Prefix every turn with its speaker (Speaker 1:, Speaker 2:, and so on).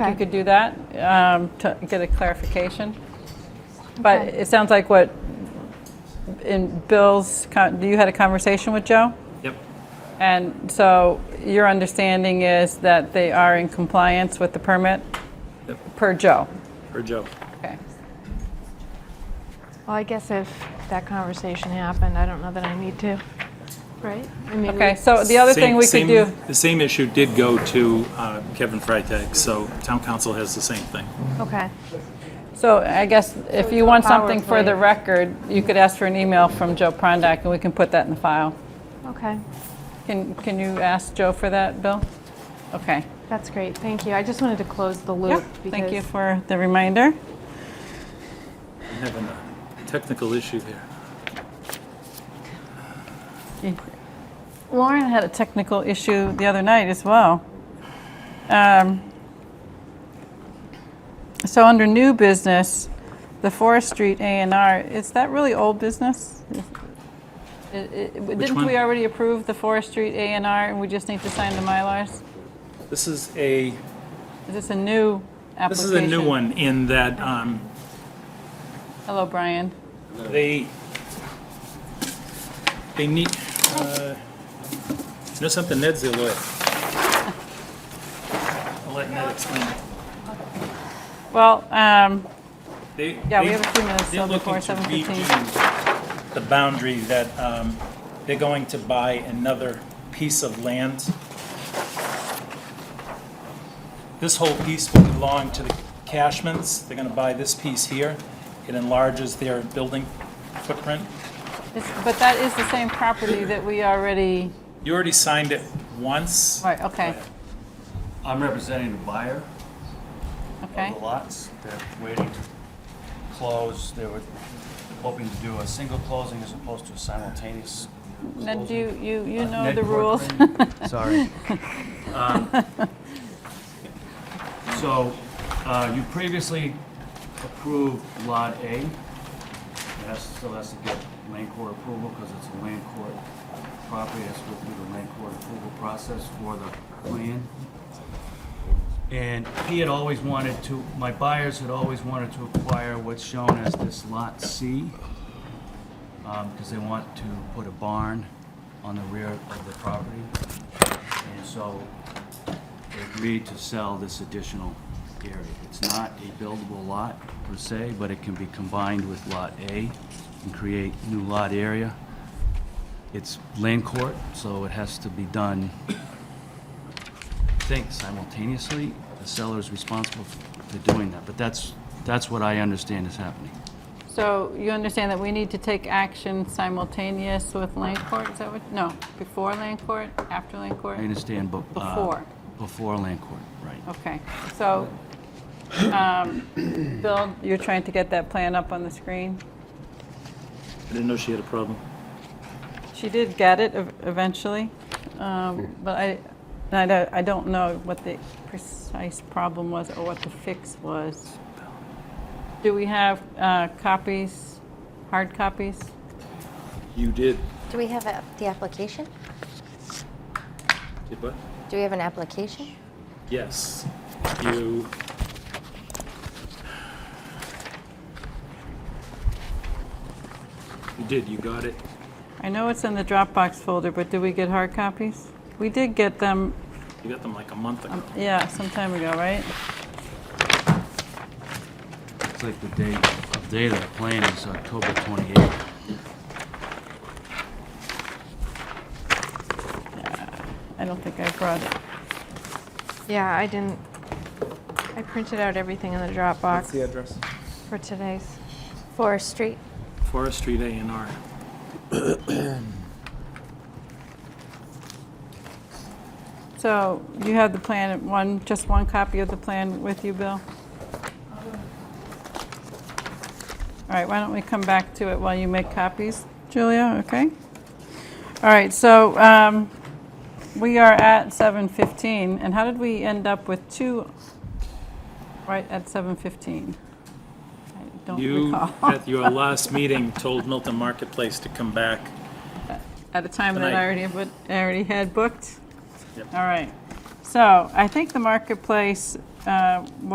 Speaker 1: If
Speaker 2: Okay.
Speaker 1: you could do that, um, to get a clarification. But
Speaker 2: Okay.
Speaker 1: it sounds like what, in Bill's, con- you had a conversation with Joe?
Speaker 3: Yep.
Speaker 1: And so your understanding is that they are in compliance with the permit?
Speaker 3: Yep.
Speaker 1: Per Joe?
Speaker 3: For Joe.
Speaker 1: Okay.
Speaker 2: Well, I guess if that conversation happened, I don't know that I need to, right? I mean,
Speaker 1: Okay,
Speaker 2: we-
Speaker 1: so the other thing
Speaker 3: Same-
Speaker 1: we could
Speaker 3: same-
Speaker 1: do,
Speaker 3: The same issue did go to uh, Kevin Freitag, so town council has the same thing.
Speaker 2: Okay,
Speaker 1: so I guess if
Speaker 2: we
Speaker 1: you
Speaker 2: do a
Speaker 1: want something for the
Speaker 2: PowerPoint.
Speaker 1: record, you could ask for an email from Joe Prondak, and we can put that in the file.
Speaker 2: okay,
Speaker 1: Can, can you ask Joe for that, Bill? Okay.
Speaker 2: that's great, thank you. I just wanted to close the
Speaker 1: Yeah,
Speaker 2: loop.
Speaker 1: thank you
Speaker 2: because-
Speaker 1: for the reminder.
Speaker 3: I'm having a technical issue here.
Speaker 1: Lauren had a technical issue the other night as well. Um, So under new business, the Forest Street A and R, is that really old business? I- I- Didn't
Speaker 3: one?
Speaker 1: we already approve the Forest Street A and R and we just need to sign the Mylars?
Speaker 3: This is a,
Speaker 1: Is this a new application?
Speaker 3: this is a new one in that um,
Speaker 1: Hello, Brian.
Speaker 3: they, they need, uh, you know something, Ned's their lawyer. I'll let Ned explain it.
Speaker 1: Well, um,
Speaker 3: They-
Speaker 1: Yeah, we
Speaker 3: they-
Speaker 1: have a few minutes still
Speaker 3: they're
Speaker 1: before
Speaker 3: looking to
Speaker 1: 7:15.
Speaker 3: redo The boundary that, um, they're going to buy another piece of land. This whole piece will belong to the Cashmans. They're gonna buy this piece here. It enlarges their building footprint.
Speaker 1: it's- but that is the same property that we already,
Speaker 3: You already signed it once.
Speaker 1: right, okay,
Speaker 4: I'm representing the buyer
Speaker 1: okay.
Speaker 4: of the lots. They're waiting to close. They were hoping to do a single closing as opposed to a simultaneous.
Speaker 1: Ned, do you, you, you
Speaker 4: Uh,
Speaker 1: know
Speaker 4: Ned
Speaker 1: the rules.
Speaker 4: Corcoran. Sorry. Um, So, uh, you previously approved Lot A. It has, still has to get land court approval because it's a land court property. It has to go through the land court approval process for the plan. And he had always wanted to, my buyers had always wanted to acquire what's shown as this Lot C, because um, they want to put a barn on the rear of the property. And so they agreed to sell this additional area. It's not a buildable lot per se, but it can be combined with Lot A and create new lot area. It's land court, so it has to be done think simultaneously, the seller is responsible for doing that, but that's, that's what I understand is happening.
Speaker 1: So you understand that we need to take action simultaneous with land court, is that what, no, before land court, after land court?
Speaker 4: I understand, but. uh,
Speaker 1: Before.
Speaker 4: Before land court, right.
Speaker 1: Okay, so, um, Bill, you're trying to get that plan up on the screen?
Speaker 3: I didn't know she had a problem.
Speaker 1: She did get it ev- eventually, um, but I, I don't- I don't know what the precise problem was or what the fix was. Do we have uh, copies, hard copies?
Speaker 3: You did.
Speaker 5: Do we have a- the application?
Speaker 3: Did what?
Speaker 5: Do we have an application?
Speaker 3: Yes. You. You did, you got it.
Speaker 1: I know it's in the Dropbox folder, but did we get hard copies? We did get them,
Speaker 3: You got them like a month ago.
Speaker 1: yeah, some time ago, right?
Speaker 4: It's like the date, the date of the plan is October 28th.
Speaker 1: I don't think I brought it.
Speaker 2: Yeah, I didn't, I printed out everything in the Dropbox
Speaker 3: address?
Speaker 2: for today's.
Speaker 5: Forest Street.
Speaker 3: Forest Street A and R.
Speaker 1: So you have the plan, one, just one copy of the plan with you, Bill? All right, why don't we come back to it while you make copies, Julia, okay? All right, so um, we are at 7:15, and how did we end up with two right at 7:15? I don't
Speaker 3: You,
Speaker 1: recall.
Speaker 3: at your last meeting, told Milton Marketplace to come back.
Speaker 1: At a time that I
Speaker 3: Tonight.
Speaker 1: already, but I already had booked?
Speaker 3: Yep.
Speaker 1: All right. So I think the marketplace uh,